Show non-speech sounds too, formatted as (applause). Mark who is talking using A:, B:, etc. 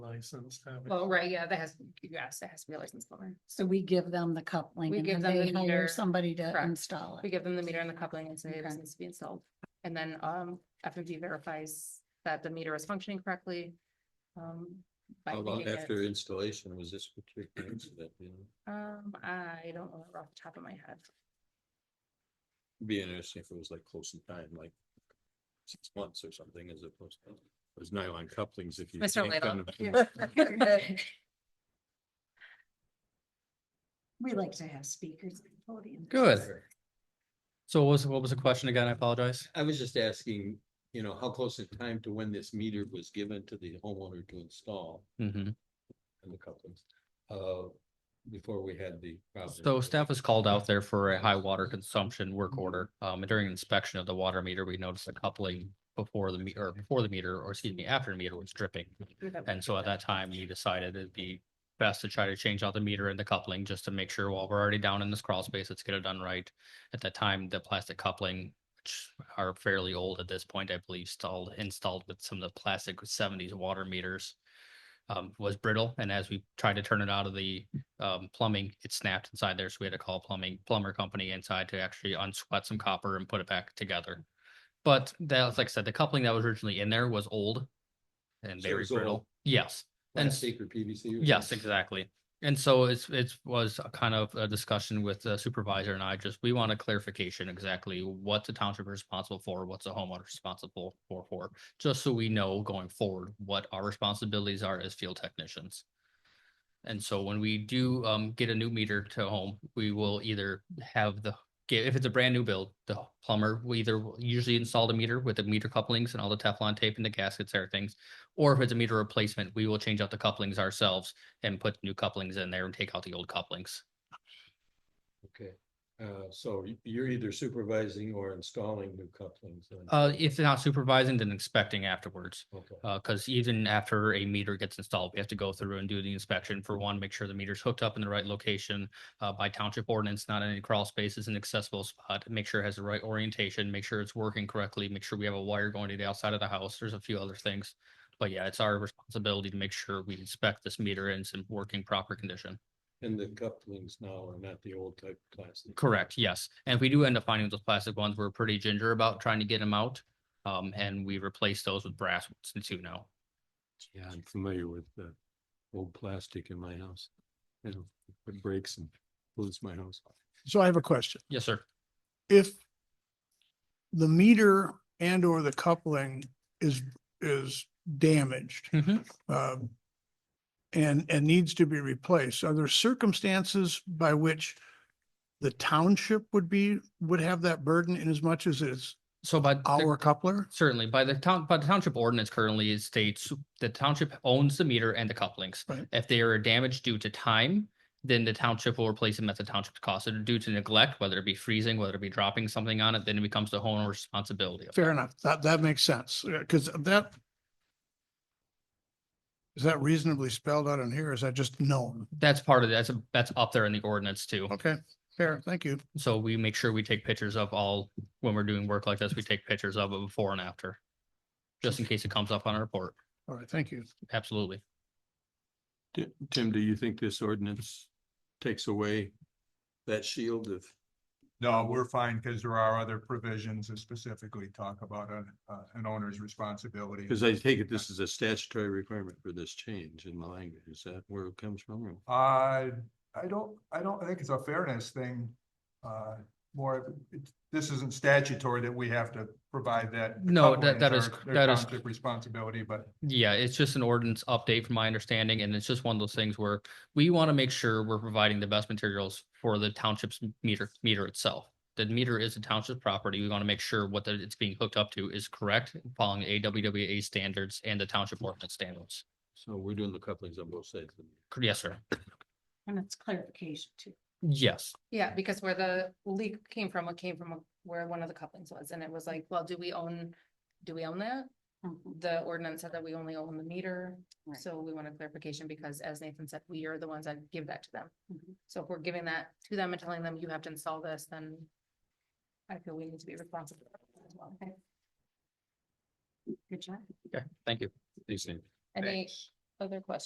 A: licensed. have it.
B: Well, right, yeah, that has, yes, that has to be licensed plumber.
C: So we give them the coupling
B: We
C: and
B: give
C: then
B: them the
C: they hire
B: meter.
C: somebody to
B: Correct.
C: install
B: We
C: it.
B: give them the meter and the coupling and say this
C: Okay.
B: needs to be installed. And then um FMV verifies that the meter is functioning correctly. um, by
D: How long
B: reading it.
D: after installation was this particular incident, you know?
B: Um, I don't know that off the top of my head.
D: It'd Be interesting if it was like close in time, like six months or something as opposed to those nylon couplings if you.
B: Mr.
D: yank on
C: (laughs)
B: Little.
C: We like to have speakers. at the podium.
E: Good. So what was, what was the question again? I apologize.
D: (laughs) I was just asking, you know, how close in time to when this meter was given to the homeowner to install
E: hmm
D: and the couplings? Uh, before we had the. problem.
E: So staff was called out there for a high water consumption work order. Um, during inspection of the water meter, we noticed a coupling before the meter, or before the meter, or excuse me, after the meter was dripping. And so at that time, we decided it'd be best to try to change out the meter and the coupling just to make sure while we're already down in this crawl space, let's get it done right. At that time, the plastic coupling, which are fairly old at this point, I believe, installed, installed with some of the plastic seventies water meters. Um, was brittle and as we tried to turn it out of the um plumbing, it snapped inside there, so we had to call plumbing, plumber company inside to actually unsweat some copper and put it back together. But that was, like I said, the coupling that was originally in there was old and
D: So it
E: very
D: was old.
E: brittle. Yes, and s-
D: Plastic or PVC? or
E: Yes,
D: something?
E: exactly. And so it's, it was a kind of a discussion with the supervisor and I just, we want a clarification exactly what the township is responsible for, what's the homeowner responsible for, for, just so we know going forward what our responsibilities are as field technicians. And so when we do um get a new meter to home, we will either have the, get- if it's a brand new build, the plumber will either usually install the meter with the meter couplings and all the Teflon tape and the gaskets, everything. Or if it's a meter replacement, we will change out the couplings ourselves and put new couplings in there and take out the old couplings.
D: Okay, uh, so y- you're either supervising or installing new couplings. then?
E: Uh, if they're not supervising, then inspecting afterwards.
D: Okay,
E: Uh, cause even after a meter gets installed, we have to go through and do the inspection for one, make sure the meter's hooked up in the right location. Uh, by township ordinance, not in any crawl spaces, an accessible spot, make sure it has the right orientation, make sure it's working correctly, make sure we have a wire going to the outside of the house. There's a few other things. But yeah, it's our responsibility to make sure we inspect this meter and it's in working proper condition.
D: and the couplings now are not the old type plastic.
E: Correct, yes. And if we do end up finding those plastic ones, we're pretty ginger about trying to get them out. Um, and we replace those with brass ones too now.
D: Yeah, I'm familiar with the old plastic in my house. You know, it breaks and blows my house.
A: So I have a question.
E: Yes, sir.
A: If the meter and or the coupling is, is damaged,
E: Mm-hmm.
A: um, and, and needs to be replaced, are there circumstances by which the township would be, would have that burden in as much as it's
E: So by. the-
A: our coupler?
E: Certainly, by the town, by the township ordinance currently it states the township owns the meter and the couplings.
A: Right.
E: If they are damaged due to time, then the township will replace them at the township's cost. So due to neglect, whether it be freezing, whether it be dropping something on it, then it becomes the homeowner's responsibility. of that.
A: Fair enough. That, that makes sense, because that is that reasonably spelled out in here? or Is that just known?
E: That's part of, that's, a- that's up there in the ordinance too.
A: Okay, fair, thank you.
E: So we make sure we take pictures of all, when we're doing work like this, we take pictures of it before and after. Just in case it comes up on our report.
A: All right, thank you.
E: Absolutely.
D: Tim, do you think this ordinance takes away that shield of?
F: No, we're fine because there are other provisions that specifically talk about an, uh, an owner's responsibility.
D: Because I take it this is a statutory requirement for this change in the language. Is that where it comes from? or-
F: Uh, I don't, I don't, I think it's a fairness thing. Uh, more, of- it's- this isn't statutory that we have to provide that.
E: No, that-
F: couplings
E: that is-
F: are their
E: that is-
F: township Responsibility, but
E: Yeah, it's just an ordinance update from my understanding, and it's just one of those things where we want to make sure we're providing the best materials for the township's meter, meter itself. The meter is a township property. We want to make sure what that it's being hooked up to is correct, following AWWA standards and the township ordinance standards.
D: So we're doing the couplings on both sides. of the-
E: Yes, sir.
C: And it's clarification too.
E: Yes.
B: Yeah, because where the leak came from, it came from where one of the couplings was, and it was like, well, do we own, do we own that?
C: Mhm.
B: The ordinance said that we only own the meter,
C: Right.
B: so we want a clarification, because as Nathan said, we are the ones that give that to them.
C: Mhm.
B: So if we're giving that to them and telling them you have to install this, then I feel we need to be responsible as well.
C: Good job.
E: Okay, thank you.
D: These things.
B: Any
D: Thanks.
B: other questions?